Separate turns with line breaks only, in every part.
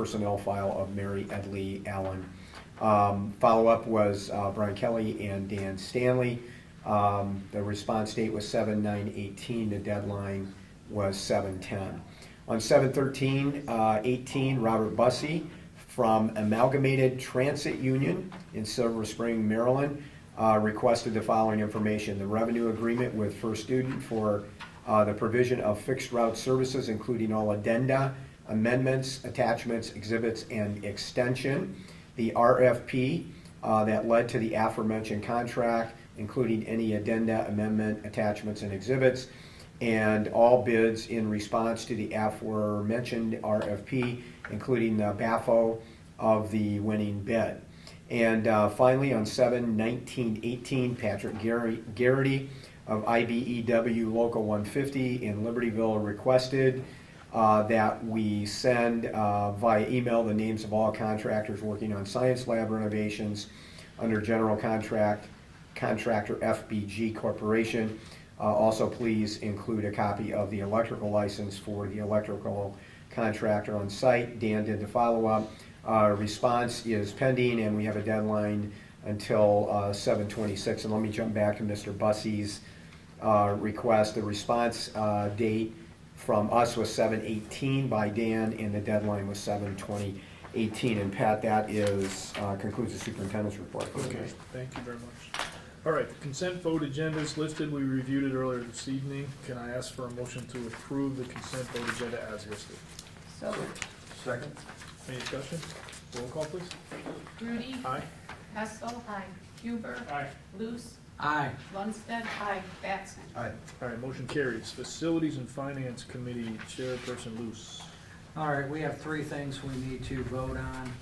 personnel file of Mary Edley Allen. Um, Follow-up was uh, Brian Kelly and Dan Stanley. Um, The response date was seven nine eighteen, the deadline was seven ten. On seven thirteen, uh, eighteen, Robert Bussey from Amalgamated Transit Union in Silver Spring, Maryland, uh, requested the following information. The revenue agreement with First Student for uh, the provision of fixed route services, including all addenda, amendments, attachments, exhibits, and extension. The RFP uh, that led to the aforementioned contract, including any addenda, amendment, attachments, and exhibits. And all bids in response to the aforementioned RFP, including the BAFO of the winning bid. And uh, finally, on 7 19 18, Patrick Gary- Garrity of IBEW Local 150 in Libertyville requested uh, that we send uh, via email the names of all contractors working on science lab renovations under general contract contractor FBG Corporation. Uh, Also, please include a copy of the electrical license for the electrical contractor on site. Dan did the follow-up. Uh, Response is pending, and we have a deadline until uh, 7/26. And let me jump back to Mr. Bussey's uh, request. The response uh, date from us was 7/18 by Dan, and the deadline was 7/20/18. And Pat, that is, uh, concludes the superintendent's report.
Okay, thank you very much. All right, the consent vote agenda is listed, we reviewed it earlier this evening. Can I ask for a motion to approve the consent vote agenda as listed?
So
Second?
Any discussion? Roll call, please.
Grudy,
Aye.
Hessel. Aye. Huber.
Aye.
Luce.
Aye.
Lundstedt. Aye. Batson.
Aye.
All right, motion carries. Facilities and Finance Committee Chairperson Luce.
All right, we have three things we need to vote on.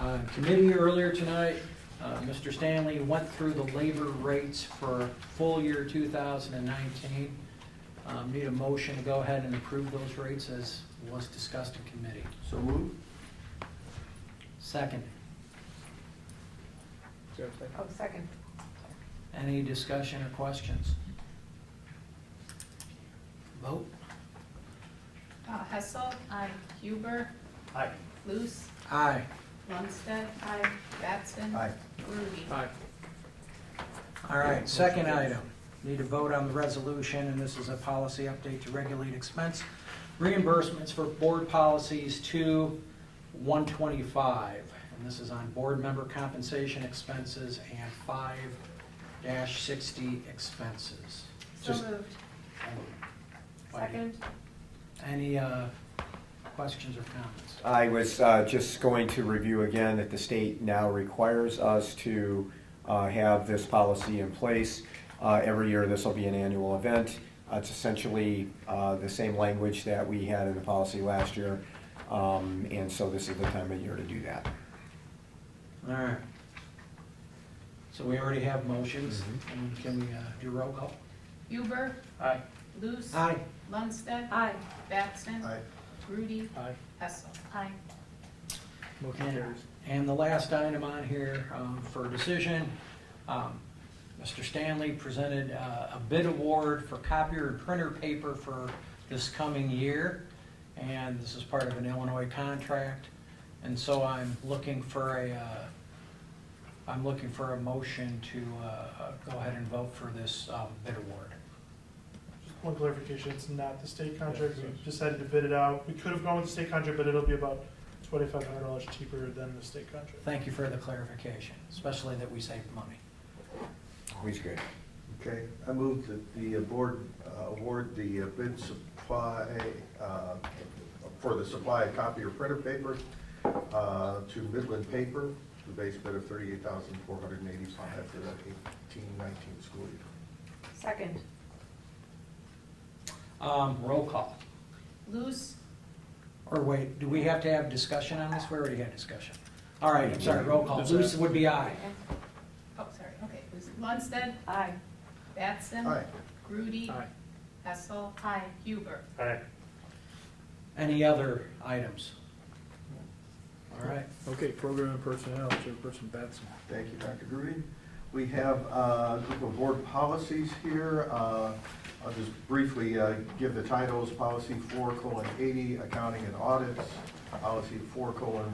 Uh, Committee earlier tonight, uh, Mr. Stanley went through the labor rates for full year 2019. Um, Need a motion to go ahead and approve those rates as was discussed in committee.
So move.
Second,
Is there a second?
Oh, second.
any discussion or questions? Vote?
Uh, Hessel. Aye. Huber.
Aye.
Luce.
Aye.
Lundstedt. Aye. Batson.
Aye.
Grudy.
Aye.
All right, second item, need to vote on the resolution, and this is a policy update to regulate expense reimbursements for board policies two, one twenty-five. And this is on board member compensation expenses and five dash sixty expenses.
So
Just-
moved. Second.
Any, uh, questions or comments?
I was uh, just going to review again that the state now requires us to uh, have this policy in place. Uh, Every year, this will be an annual event. Uh, It's essentially uh, the same language that we had in the policy last year, Um, and so this is the time of year to do that.
All right. So we already have motions, and can we, uh, do roll call?
Huber.
Aye.
Luce.
Aye.
Lundstedt. Aye. Batson.
Aye.
Grudy.
Aye.
Hessel. Aye.
Motion carries.
And the last item on here um, for decision, um, Mr. Stanley presented uh, a bid award for copier and printer paper for this coming year. And this is part of an Illinois contract. And so I'm looking for a, uh, I'm looking for a motion to uh, go ahead and vote for this um, bid award.
Just one clarification, it's not the state contract,
Yeah,
we
it's-
decided to bid it out, we could have gone with the state contract, but it'll be about twenty-five hundred dollars cheaper than the state contract.
Thank you for the clarification, especially that we saved money.
Always good.
Okay, I move that the board uh, award the uh, bid supply, uh, for the supply of copy or printer paper uh, to Midland Paper, the base bid of thirty-eight thousand four hundred and eighty-five for the eighteen nineteen school year.
Second.
Um, Roll call.
Luce.
Or wait, do we have to have discussion on this? We already had discussion. All right, I'm sorry, roll call.
Yes,
Luce
ma'am.
would be aye.
Oh, sorry, okay. Luce. Lundstedt. Aye. Batson.
Aye.
Grudy.
Aye.
Hessel. Aye. Huber.
Any other items? All right,
Okay, Program and Personnel Chairperson Batson.
Thank you, Dr. Grudy. We have uh, a group of board policies here. Uh, I'll just briefly uh, give the titles, policy four colon eighty, accounting and audits, policy four colon